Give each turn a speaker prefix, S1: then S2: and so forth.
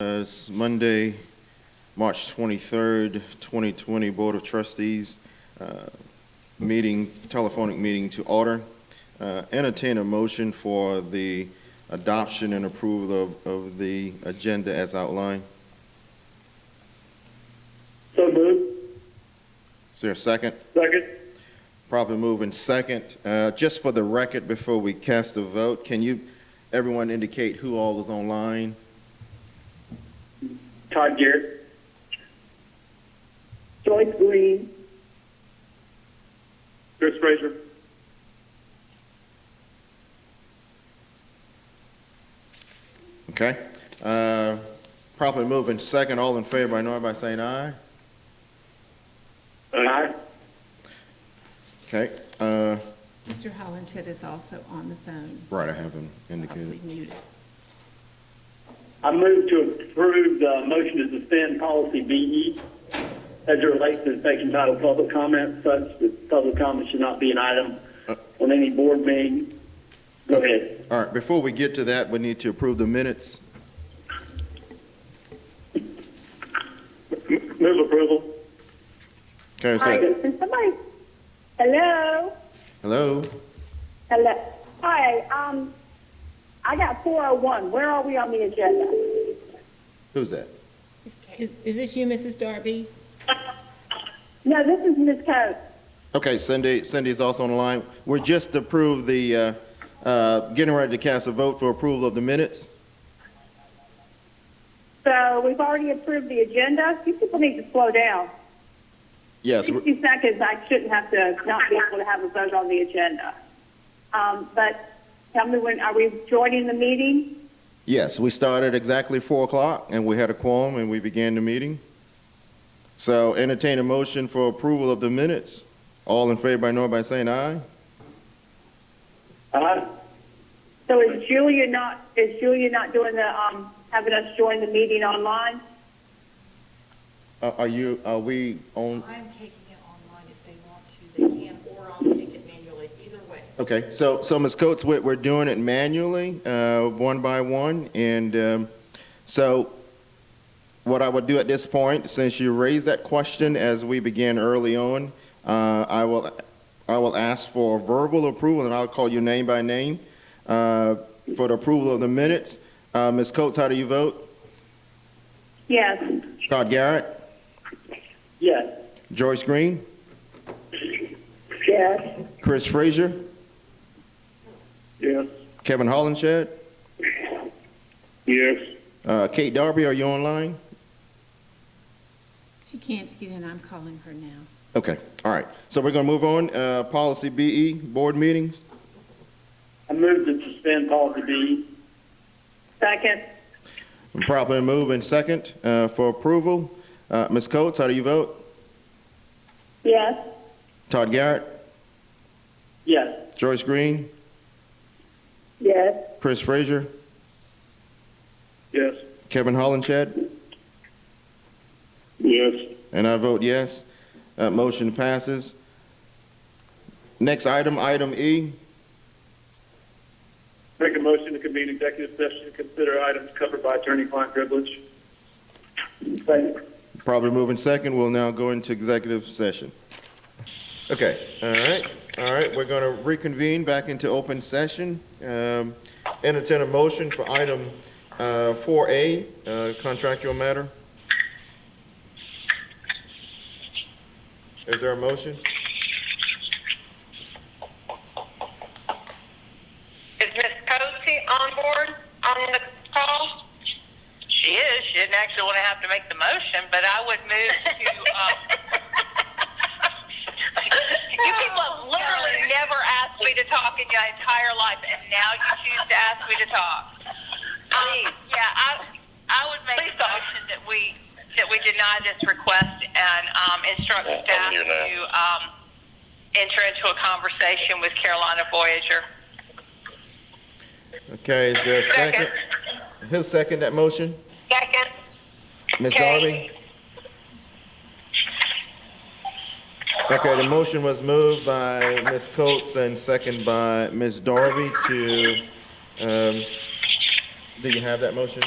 S1: Uh, It's Monday, March 23rd, 2020 Board of Trustees uh, meeting, telephonic meeting to order. Uh, Entertain a motion for the adoption and approval of, of the agenda as outlined.
S2: So moved.
S1: Is there a second?
S2: Second.
S1: Probably moving second. Uh, Just for the record, before we cast a vote, can you, everyone indicate who all is online?
S2: Todd Garrett. Joyce Green. Chris Fraser.
S1: Okay? Uh, Probably moving second. All in favor, I know by saying aye.
S2: Aye.
S1: Okay, uh,
S3: Mr. Hollenshed is also on the phone.
S1: right, I have him
S3: so
S1: indicated.
S3: probably muted.
S2: I move to approve the motion to suspend policy BE as it relates to taking title public comment, such that public comment should not be an item on any board meeting. Go ahead.
S1: All right, before we get to that, we need to approve the minutes.
S2: Move approval.
S1: Okay, is
S4: Hi,
S1: that,
S4: can somebody? Hello,
S1: hello?
S4: hello. Hi, um, I got four oh one. Where are we on the agenda?
S1: Who's that?
S3: Is, is this you, Mrs. Darby?
S4: No, this is Ms. Coates.
S1: Okay, Cindy, Cindy's also on the line. We're just to approve the, uh, uh, getting ready to cast a vote for approval of the minutes.
S4: So we've already approved the agenda. You people need to slow down.
S1: Yes, we're-
S4: Sixty seconds, I shouldn't have to not be able to have a vote on the agenda. Um, but tell me when, are we joining the meeting?
S1: yes, we started exactly four o'clock and we had a quorum and we began the meeting. So entertain a motion for approval of the minutes. All in favor, I know by saying aye.
S2: Aye.
S4: So is Julia not, is Julia not doing the, um, having us join the meeting online?
S1: Uh, Are are you, are we on,
S5: I'm taking it online if they want to, they can, or I'll take it manually, either way.
S1: Okay, so, so Ms. Coates, we're, we're doing it manually, uh, one by one, and, um, so what I would do at this point, since you raised that question as we began early on, uh, I will, I will ask for verbal approval, and I'll call you name by name, uh, for the approval of the minutes. Uh, Ms. Coates, how do you vote?
S4: Yes.
S1: Todd Garrett,
S2: Yes.
S1: Joyce Green,
S4: Yes.
S1: Chris Frazier,
S2: Yes.
S1: Kevin Hollenshed,
S2: Yes.
S1: uh, Kate Darby, are you online?
S3: She can't get in, I'm calling her now.
S1: Okay, all right. So we're going to move on. Uh, Policy BE, board meetings.
S2: I move to suspend policy E. BE.
S4: Second.
S1: Properly move in second uh, for approval. Uh, Ms. Coates, how do you vote?
S4: Yes.
S1: Todd Garrett,
S2: Yes.
S1: Joyce Green,
S4: Yes.
S1: Chris Frazier,
S2: Yes.
S1: Kevin Hollenshed,
S2: Yes.
S1: and I vote yes. Uh, Motion passes. Next item, item E.
S2: Make a motion to convene executive session to consider items covered by attorney-client privilege. Second.
S1: Probably moving second, we'll now go into executive session. Okay, all right, all right, we're going to reconvene back into open session. Um, Entertain a motion for item uh, 4A, uh, contractual matter. Is there a motion?
S6: Is Miss Posey on board on the call?
S7: She is. She didn't actually want to have to make the motion, but I would move to. Um,
S6: You people have literally never asked me to talk in your entire life, and now you choose to ask me to talk.
S7: um, yeah, I I would make
S6: Please
S7: a
S6: don't.
S7: motion that we that we deny this request and um, instruct staff to um, enter into a conversation with Carolina Voyager.
S1: Okay, is there a second? Who second that motion?
S6: Second.
S1: Ms. Darby?
S6: Kate.
S1: Okay, the motion was moved by Ms. Coates and second by Ms. Darby to, um, do you have that motion?